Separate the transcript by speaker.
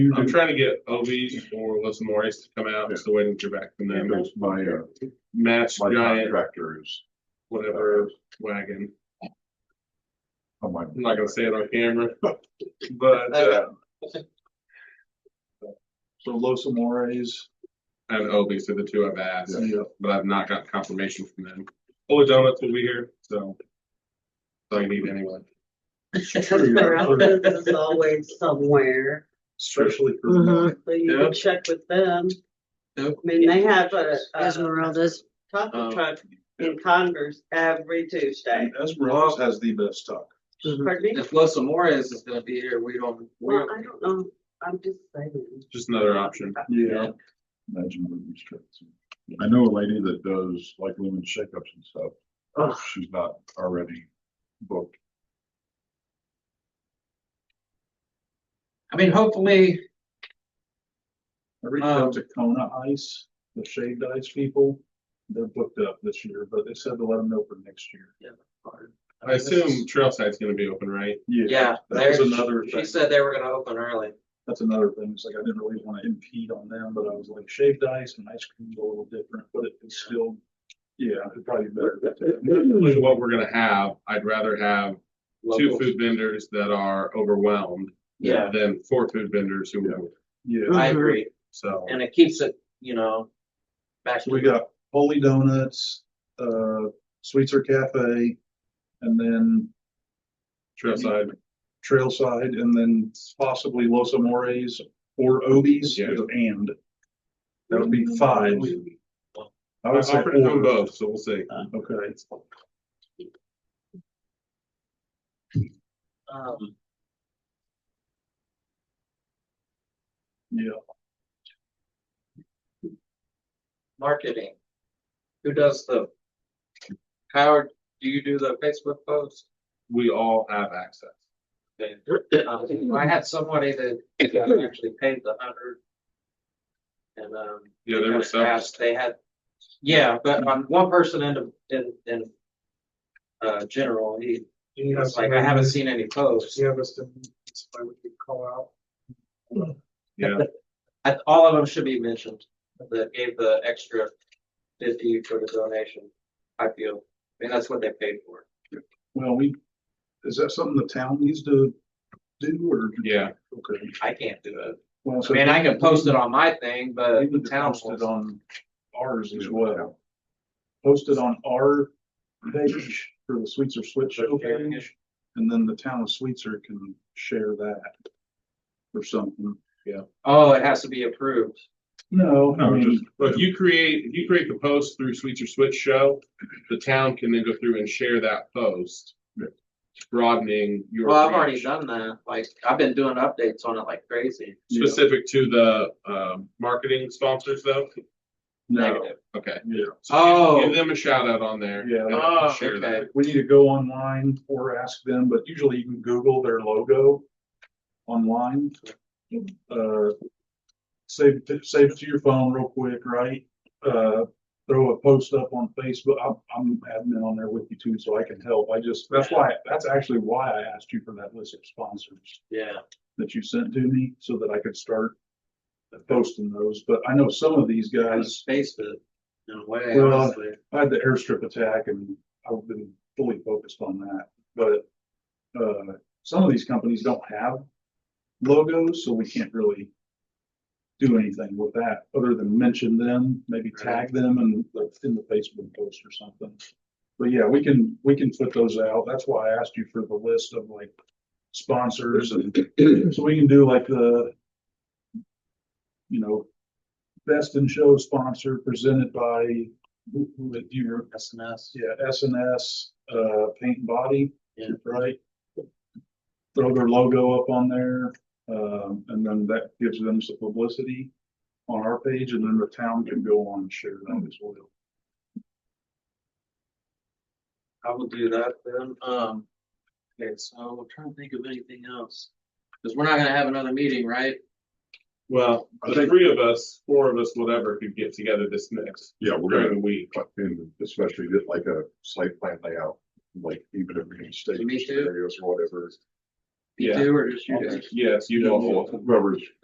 Speaker 1: I'm trying to get Obies or Los Mores to come out, just waiting to hear back from
Speaker 2: That
Speaker 1: them.
Speaker 2: was my, uh,
Speaker 1: Match
Speaker 2: my
Speaker 1: giant,
Speaker 2: contractor is
Speaker 1: whatever wagon.
Speaker 2: on Oh, my.
Speaker 1: I'm not gonna say it on camera, but, uh,
Speaker 2: So Los Amores.
Speaker 1: and Obies are the two I've asked,
Speaker 2: Yeah.
Speaker 1: but I've not got confirmation from them. Holy Donuts will be here, so. So I need anyone.
Speaker 3: Caracas is always somewhere,
Speaker 2: Especially for.
Speaker 4: Mhm.
Speaker 3: so you
Speaker 1: Yeah.
Speaker 3: can check with them. I
Speaker 1: Yep.
Speaker 3: mean, they have a, a
Speaker 4: Esmeralda's.
Speaker 3: taco
Speaker 1: Um,
Speaker 3: truck in Congress every Tuesday.
Speaker 2: And Esmeralda's has the best talk.
Speaker 3: Pardon me?
Speaker 5: If Los Amores is gonna be here, we don't, we,
Speaker 3: Well, I don't know, I'm just saying.
Speaker 1: Just another option.
Speaker 2: Yeah. Imagine what these trips. I know a lady that does like women's shakeups and stuff. if She's not already booked.
Speaker 5: I mean, hopefully,
Speaker 2: I reached
Speaker 5: Um,
Speaker 2: out to Kona Ice, the shaved ice people. They're booked up this year, but they said to let them know for next year.
Speaker 1: I assume Trailside's gonna be open, right?
Speaker 5: yeah,
Speaker 2: That was
Speaker 5: they're-
Speaker 2: another
Speaker 5: she
Speaker 2: thing.
Speaker 5: said they were gonna open early.
Speaker 2: That's another thing. It's like I didn't really want to impede on them, but I was like shaved ice and ice cream's a little different, but it's still, yeah, it'd probably be
Speaker 1: Usually
Speaker 2: better.
Speaker 1: What we're gonna have, I'd rather have two
Speaker 5: Local.
Speaker 1: food vendors that are overwhelmed
Speaker 5: Yeah,
Speaker 1: than four food vendors who won't.
Speaker 2: Yeah,
Speaker 5: I agree,
Speaker 1: So
Speaker 5: and it keeps it, you know, back.
Speaker 2: we got Holy Donuts, uh, Sweetser Cafe, and then
Speaker 1: Trailside,
Speaker 2: Trailside, and then possibly Los Amores or Obies,
Speaker 1: Yeah.
Speaker 2: and that would be five. I
Speaker 1: I
Speaker 2: would say
Speaker 1: offered to do
Speaker 2: four.
Speaker 1: both, so we'll see.
Speaker 2: Okay.
Speaker 5: Um,
Speaker 2: Yeah,
Speaker 5: marketing. Who does the? Howard, do you do the Facebook post?
Speaker 1: We all have access.
Speaker 5: Um, I had somebody that actually paid the hundred. And, um.
Speaker 1: Yeah, there were some.
Speaker 5: asked, They had, yeah, but on one person in, in, in, uh, general, he, he was like, I haven't seen any posts.
Speaker 6: Yeah, but then that's why we could call out.
Speaker 1: Yeah,
Speaker 5: I- all of them should be mentioned, that gave the extra fifty for the donation, I feel. I mean, that's what they paid for.
Speaker 2: well, we, is that something the town needs to do or?
Speaker 1: yeah.
Speaker 2: Okay.
Speaker 5: I can't do it.
Speaker 2: Well,
Speaker 5: I
Speaker 2: so-
Speaker 5: mean, I can post it on my thing,
Speaker 2: We
Speaker 5: but the
Speaker 2: need to
Speaker 5: town
Speaker 2: post it
Speaker 5: will.
Speaker 2: on ours as well. Post it on our page for the Sweets or Switch show page, and then the town of Sweetser can share that. Or something.
Speaker 5: Oh, it has to be approved.
Speaker 2: No, I
Speaker 1: No,
Speaker 2: mean,
Speaker 1: But if you create, if you create the post through Sweets or Switch Show, the town can then go through and share that post. Broadening your.
Speaker 5: Well, I've already
Speaker 1: reach,
Speaker 5: done that. Like, I've been doing updates on it like crazy.
Speaker 2: Yeah.
Speaker 1: Specific to the, um, marketing sponsors though.
Speaker 2: no,
Speaker 5: Negative.
Speaker 1: Okay.
Speaker 2: yeah,
Speaker 1: So give-
Speaker 5: Oh.
Speaker 1: Give them a shout out on there.
Speaker 2: Yeah.
Speaker 1: and
Speaker 5: Oh,
Speaker 1: Share that.
Speaker 5: okay.
Speaker 2: we need to go online or ask them, but usually you can Google their logo. Online. Uh. Save, it- save it to your phone real quick, right? Uh, throw a post up on Facebook. I'm, I'm admin on there with you too, so I can help. I just, that's why, that's actually why I asked you for that list of sponsors
Speaker 5: Yeah.
Speaker 2: that you sent to me so that I could start. Posting those, but I know some of these
Speaker 5: I
Speaker 2: guys.
Speaker 5: just spaced it in a way,
Speaker 2: Well,
Speaker 5: honestly.
Speaker 2: I had the airstrip attack and I've been fully focused on that, but, uh, some of these companies don't have logos, so we can't really do anything with that, other than mention them, maybe tag them and like in the Facebook post or something. But yeah, we can, we can put those out. That's why I asked you for the list of like sponsors and so we can do like the you know, best in show sponsor presented by who, who, do you remember?
Speaker 5: SNS.
Speaker 2: Yeah, S and S, uh, paint and body.
Speaker 5: Yeah.
Speaker 2: Right? Throw their logo up on there, um, and then that gives them some publicity on our page, and then the town can go on and share that as well.
Speaker 5: I will do that then. Um, okay, so I'm trying to think of anything else. Cause we're not gonna have another meeting, right?
Speaker 1: Well, the three of us, four of us, whatever, could get together this next,
Speaker 7: Yeah, we're
Speaker 1: during
Speaker 7: gonna,
Speaker 1: the week.
Speaker 7: and especially just like a site plan layout, like even if we can stay
Speaker 5: Me too.
Speaker 7: scenarios or whatever.
Speaker 5: You
Speaker 1: Yeah.
Speaker 5: do or just you guys?
Speaker 1: Yes, you
Speaker 7: You
Speaker 1: all.
Speaker 7: know, whoever's